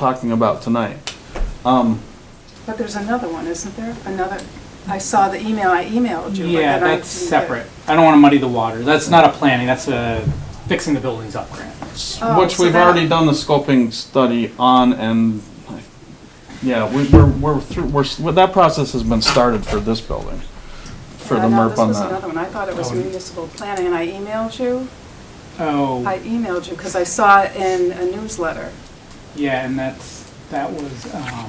talking about tonight. Um, But there's another one, isn't there? Another, I saw the email, I emailed you. but Yeah, then I that's didn't get it. separate. I don't want to muddy the water. That's not a planning, that's a fixing the buildings up grant. Oh, which so we've that- already done the scoping study on and, yeah, we, we're, we're through, we're, s- well, that process has been started for this building. For Yeah, the no, MERP on This was that. another one. I thought it was Oh. municipal planning, and I emailed you. I Oh, emailed you because I saw it in a newsletter. yeah, and that's, that was, um,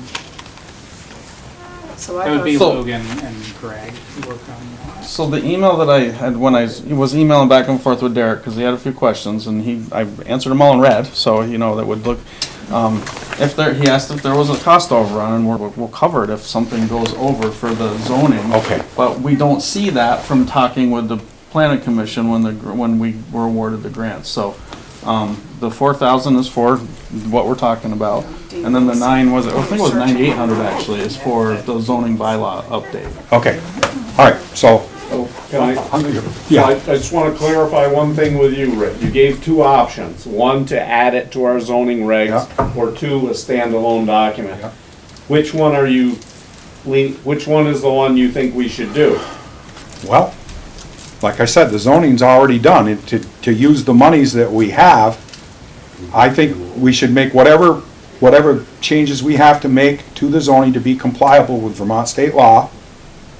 So I that would thought, be So- Logan and Greg who worked on that. So the email that I had when I s- was emailing back and forth with Derek, because he had a few questions, and he, I answered them all in red, so, you know, that would look, um, if there, he asked if there was a cost overrun, and we're, we'll cover it if something goes over for the zoning. Okay. But we don't see that from talking with the planning commission when the, gr- when we were awarded the grant, so, um, the four thousand is for what we're talking about, and then the nine was, I think it was ninety-eight hundred actually, is for the zoning bylaw update. Okay, all right, so, Can I, Yeah. I I just want to clarify one thing with you, Rick. You gave two options, one to add it to our zoning regs, or two, a standalone document. Yeah. Which one are you, lean- which one is the one you think we should do? well, like I said, the zoning's already done. It- To, to use the monies that we have, I think we should make whatever, whatever changes we have to make to the zoning to be compliable with Vermont state law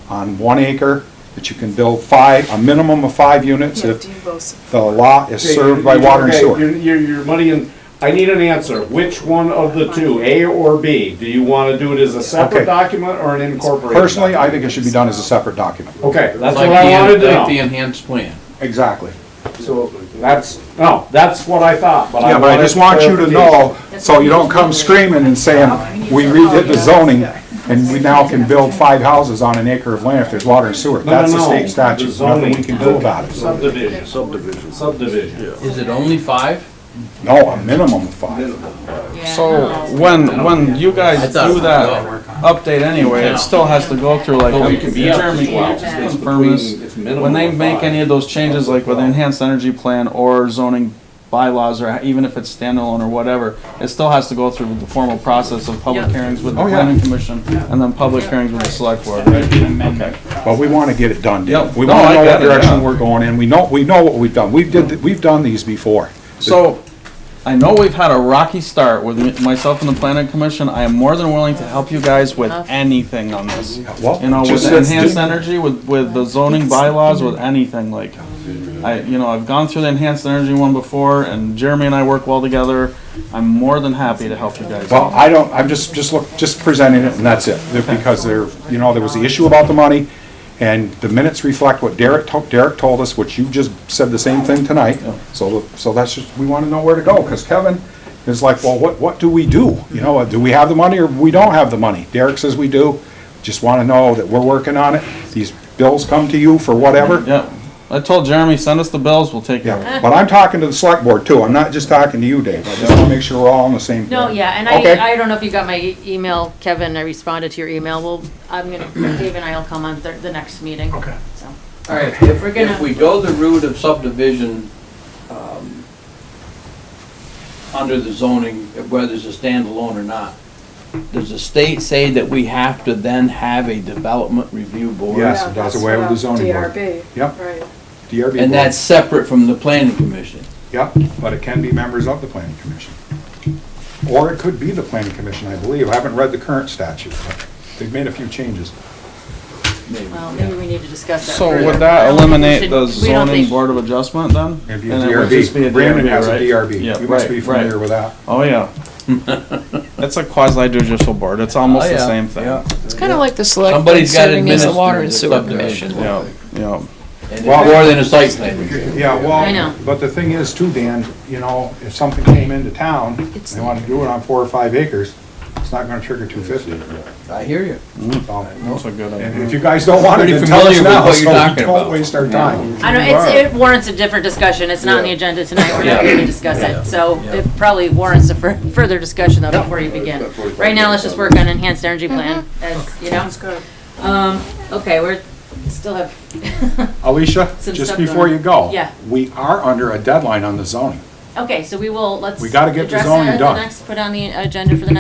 on one acre, that you can build five, a minimum of five units yeah, if Debo's, the lot is served by water and Okay, sewer. You're, you're, you're muddy and, I need an answer. Which one of the two, A or B? Do you want to do it as a Okay. separate document or an incorporated? Personally, I document? think it should be done as a separate document. Okay, that's Like what I the- wanted to know. Like the enhanced plan. Exactly. So that's, no, that's what I thought, but I Yeah, but I just want you to know, so you don't come screaming and saying, we redid the zoning, and we now can build five houses on an acre of land if there's water and sewer. That's the state statute, nothing we can do about it. Subdivision. Subdivision. Subdivision. Is it only five? No, a minimum of five. So when, when you I guys thought it do was that update anyway, it still has to go through like, um, But we can be up to Jeremy, speed. can you just confirm this? When they make any of those changes, like with enhanced energy plan or zoning bylaws, or even if it's standalone or whatever, it still has to go through the formal process of public hearings with the Oh, yeah. planning commission, and then public hearings with the select board, right? An amendment. But we want to get it done, Dan. Yep. We No, want I to know get what it, direction yeah. we're going in. We know, we know what we've done. We did, we've done these before. So, I know we've had a rocky start with me- myself and the planning commission. I am more than willing to help you guys with anything on this. well, You know, with just let's enhanced do- energy, with, with the zoning bylaws, with anything like, I, you know, I've gone through the enhanced energy one before and Jeremy and I work well together. I'm more than happy to help you guys. Well, I don't, I'm just, just look, just presenting it and that's it, because there, you know, there was the issue about the money, and the minutes reflect what Derek, to- Derek told us, which you just said the same thing tonight, so, so that's just, we wanna know where to go, because Kevin is like, well, what, what do we do? You know, do we have the money or we don't have the money? Derek says we do, just wanna know that we're working on it, these bills come to you for whatever. Yeah, I told Jeremy, send us the bills, we'll take care of it. Yeah, but I'm talking to the select board too, I'm not just talking to you, Dave, I just wanna make sure we're all on the same. No, yeah, and Okay. I, I don't know if you got my e- email, Kevin, I responded to your email, well, I'm gonna, Dave and I will come on the, the next meeting. Okay. So, All right, if, We're gonna- if we go the route of subdivision, um, under the zoning, whether it's a standalone or not, does the state say that we have to then have a development review board? Yes, yeah, it that's does away with the what I- zoning board. DRB, Yep. right. DRB board. And that's separate from the planning commission? Yep, but it can be members of the planning commission. Or it could be the planning commission, I believe. I haven't read the current statute, but they've made a few changes. Maybe. well, maybe we need to discuss that So further. would I that don't think we eliminate should- the we don't zoning think- board of adjustment then? It'd be a And it would just be a DRB. Brandon has a right? Yeah, DRB. You must right, be right. familiar with that. Oh, yeah. It's a quasi judicial board, it's almost Oh, the yeah, same thing. yeah. It's kind of like the select board Somebody's got to serving as the administer water and the sewer subdivision. commission. Yeah, yeah. And it's Well- more than a site plan review. Yeah, I know. well, but the thing is too, Dan, you know, if something came into town, and they want to do it on four or five acres, it's not gonna trigger two fifty. I hear you. That's a good And idea. if you guys don't want it, Pretty then tell us familiar with now, what so you're we talking don't about. waste our time. I don't, it's, it warrants a different discussion, it's not on the Yeah. agenda tonight, we're not Yeah. gonna discuss it, so it probably warrants a fur- further discussion though before you begin. Right now, let's just work on enhanced energy plan, Mm-hmm. as, you know, Sounds good. um, okay, we're, still have, Alicia, Some just stuff before going you on. go. Yeah. We are under a deadline on the zoning. okay, so we will, let's. We gotta get the address zoning that at the done. next- Put on the agenda for the next